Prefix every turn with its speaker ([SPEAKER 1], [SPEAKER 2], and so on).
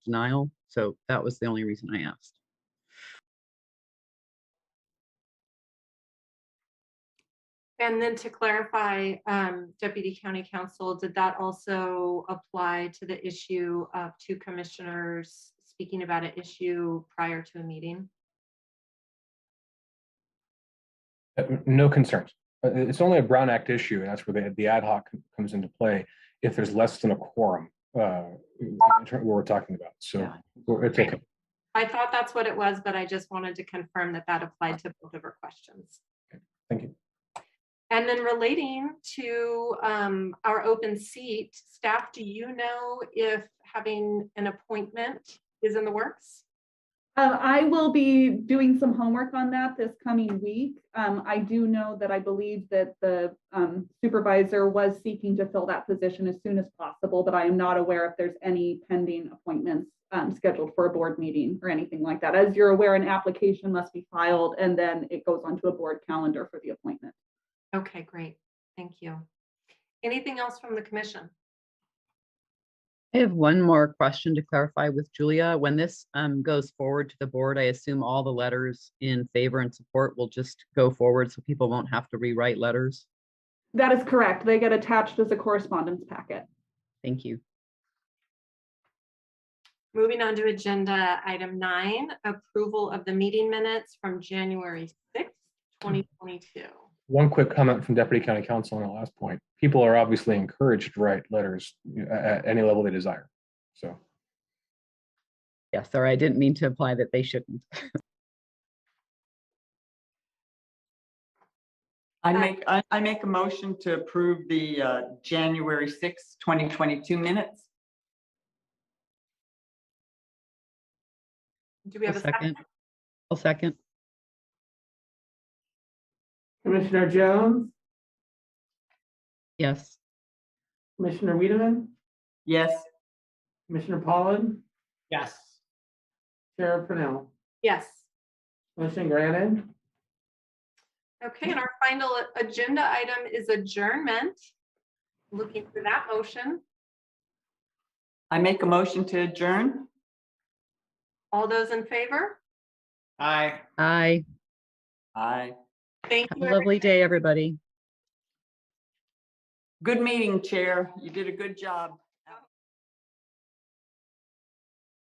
[SPEAKER 1] denial. So that was the only reason I asked.
[SPEAKER 2] And then to clarify, um, Deputy County Counsel, did that also apply to the issue of two commissioners speaking about an issue prior to a meeting?
[SPEAKER 3] Uh, No concerns. Uh, It's only a Brown Act issue, and that's where the, the ad hoc comes into play if there's less than a quorum, uh, in terms of what we're talking about. So
[SPEAKER 1] Yeah.
[SPEAKER 3] we're- it's okay.
[SPEAKER 2] I thought that's what it was, but I just wanted to confirm that that applied to both of her questions.
[SPEAKER 3] Thank you.
[SPEAKER 2] And then relating to um, our open seat, staff, do you know if having an appointment is in the works?
[SPEAKER 4] Um, I will be doing some homework on that this coming week. Um, I do know that I believe that the um, supervisor was seeking to fill that position as soon as possible, but I am not aware if there's any pending appointments um, scheduled for a board meeting or anything like that. As you're aware, an application must be filed and then it goes onto a board calendar for the appointment.
[SPEAKER 2] Okay, great. Thank you. Anything else from the commission?
[SPEAKER 1] I have one more question to clarify with Julia. When this um, goes forward to the board, I assume all the letters in favor and support will just go forward so people won't have to rewrite letters.
[SPEAKER 4] That is correct. They get attached as a correspondence packet.
[SPEAKER 1] Thank you.
[SPEAKER 2] Moving on to agenda item nine, approval of the meeting minutes from January sixth, twenty twenty-two.
[SPEAKER 3] One quick comment from Deputy County Council on the last point. People are obviously encouraged to write letters you know, at, at any level they desire. So
[SPEAKER 1] Yeah, sorry, I didn't mean to imply that they shouldn't.
[SPEAKER 5] I
[SPEAKER 2] Uh,
[SPEAKER 5] make, I, I make a motion to approve the uh, January sixth, twenty twenty-two minutes.
[SPEAKER 2] Do we have a second?
[SPEAKER 1] I'll second.
[SPEAKER 6] Commissioner Jones,
[SPEAKER 1] Yes.
[SPEAKER 6] Commissioner Wiedemann,
[SPEAKER 5] Yes,
[SPEAKER 6] Commissioner Pollan,
[SPEAKER 7] Yes,
[SPEAKER 6] Chair Purnell.
[SPEAKER 2] Yes.
[SPEAKER 6] Motion granted.
[SPEAKER 2] Okay, and our final agenda item is adjournment. Looking for that motion.
[SPEAKER 5] I make a motion to adjourn.
[SPEAKER 2] All those in favor?
[SPEAKER 7] I.
[SPEAKER 1] Aye.
[SPEAKER 5] Aye.
[SPEAKER 2] Thank
[SPEAKER 1] Have
[SPEAKER 2] you.
[SPEAKER 1] a
[SPEAKER 2] everyone.
[SPEAKER 1] lovely day, everybody.
[SPEAKER 5] Good meeting, Chair. You did a good job.